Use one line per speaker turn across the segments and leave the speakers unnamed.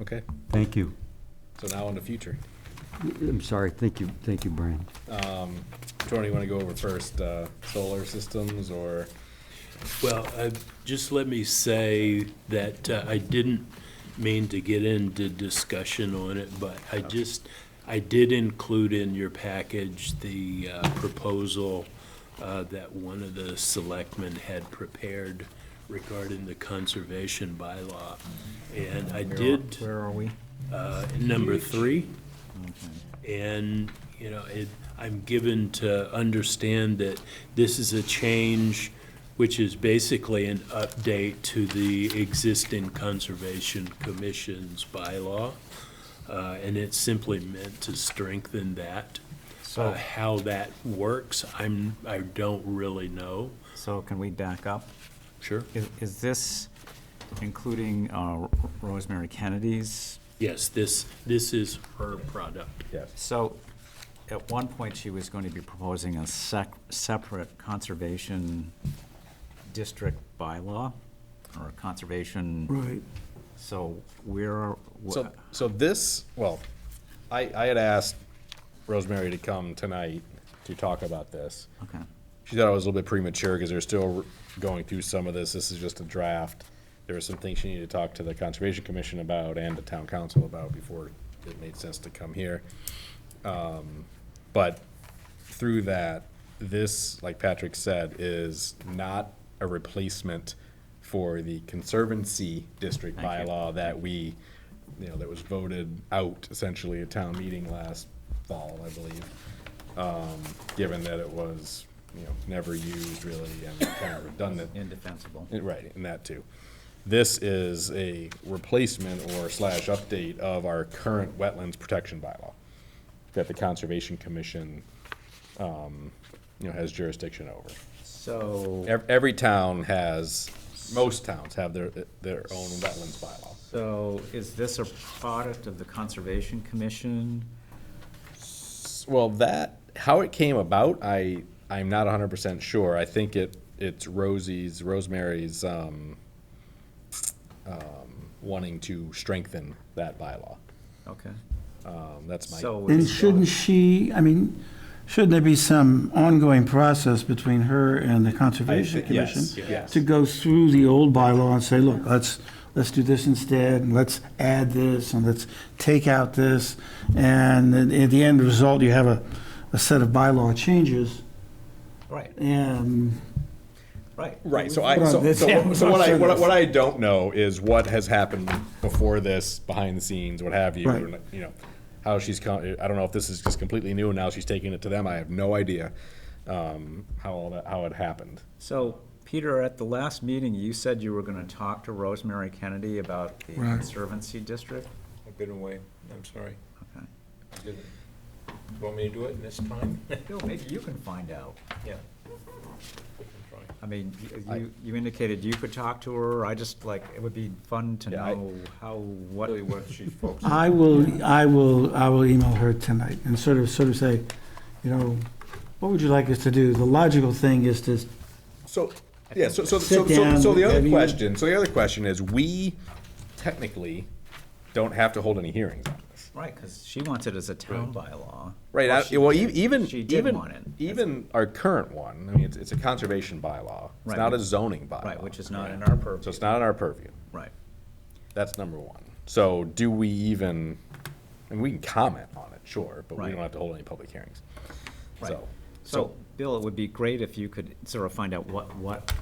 Okay,
Thank you.
so now in the future.
I'm sorry, thank you, thank you, Brian.
Tony, you want to go over first, uh, solar systems or?
Well, uh, just let me say that uh, I didn't mean to get into discussion on it, but I just, I did include in your package the uh, proposal uh, that one of the selectmen had prepared regarding the conservation bylaw. And I did.
Where are we?
uh, number three. And, you know, it, I'm given to understand that this is a change which is basically an update to the existing Conservation Commission's bylaw. Uh, and it's simply meant to strengthen that. Uh,
So,
how that works, I'm, I don't really know.
so can we back up?
Sure.
Is, is this including uh, Rosemary Kennedy's?
Yes, this, this is her product.
Yes.
So, at one point, she was going to be proposing a sec, separate conservation district bylaw, or a conservation. Right. So where are, wh-
So, so this, well, I, I had asked Rosemary to come tonight to talk about this.
okay,
She thought it was a little bit premature because they're still going through some of this. This is just a draft. There were some things she needed to talk to the Conservation Commission about and the town council about before it made sense to come here. Um, But through that, this, like Patrick said, is not a replacement for the Conservancy District
Thank you.
bylaw that we, you know, that was voted out essentially at town meeting last fall, I believe given that it was, you know, never used really and kind of redundant.
indefensible.
Eh, Right, and that too. This is a replacement or slash update of our current wetlands protection bylaw that the Conservation Commission, um, you know, has jurisdiction over.
So,
Ev- Every town has, most towns have their, their own wetlands bylaw.
so is this a product of the Conservation Commission?
Well, that, how it came about, I, I'm not hundred percent sure. I think it, it's Rosie's, Rosemary's, um, um, wanting to strengthen that bylaw.
Okay,
Um, that's my.
so.
And
it's-
shouldn't she, I mean, shouldn't there be some ongoing process between her and the Conservation
I thi- yes,
Commission?
yes.
To go through the old bylaw and say, look, let's, let's do this instead, and let's add this, and let's take out this. And at at the end result, you have a, a set of bylaw changes,
Right,
and
right.
Right, so I,
Hold on,
so,
this- yeah,
so, so what I,
I'm
what I,
sorry.
what I don't know is what has happened before this, behind the scenes, what have you,
Right.
and, you know, how she's con, I don't know if this is just completely new and now she's taking it to them, I have no idea, um, how all that, how it happened.
So, Peter, at the last meeting, you said you were gonna talk to Rosemary Kennedy about the
Right.
Conservancy District?
I've been away, I'm sorry.
Okay.
I didn't. You Want me to do it this time? Yeah.
Bill, maybe you can find out.
I can try.
I mean, y- you, you indicated you could talk to her, I just, like, it would be fun to
Yeah, I-
know how, what.
Really what she's focused on.
I will, I will, I will email her tonight and sort of, sort of say, you know, what would you like us to do? The logical thing is to
So, yeah, so, so, so,
Sit
so,
down,
so the
have
other
you-
question, so the other question is, we technically don't have to hold any hearings on this.
Right, because she wants it as a town bylaw.
Right, I-
she
well, e-
did.
even,
She did
even,
want it.
even our current one, I mean, it's, it's a conservation bylaw, it's
Right,
not a
which-
zoning bylaw.
Right, which is not in
So
our purview,
it's not in our purview,
right.
that's number one. So do we even, and we can comment on it, sure, but we
Right.
don't have to hold any public hearings.
Right.
So,
So, Bill, it would be great if you could sort of find out what, what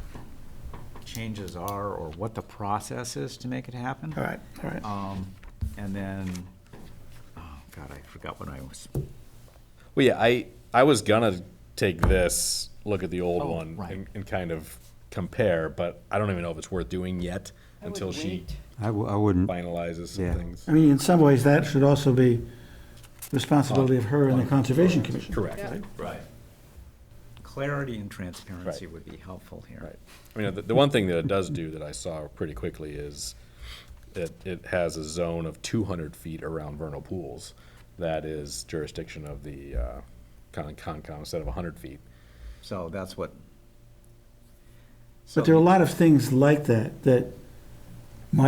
changes are or what the process is to make it happen.
All right, all right.
Um, and then, oh, God, I forgot what I was,
well, yeah, I, I was gonna take this, look at the old
Oh,
one,
right.
and, and kind of compare, but I don't even know if it's worth doing yet until she
I w- I wouldn't,
finalizes some
Yeah.
things.
I mean, in some ways, that should also be responsibility of her and the Conservation Commission.
Correct.
Right.
clarity and transparency would be helpful here.
Right. I mean, the, the one thing that it does do that I saw pretty quickly is it, it has a zone of two hundred feet around vernal pools. That is jurisdiction of the, uh, Con, Concom instead of hundred feet.
So that's what.
But there are a lot of things like that, that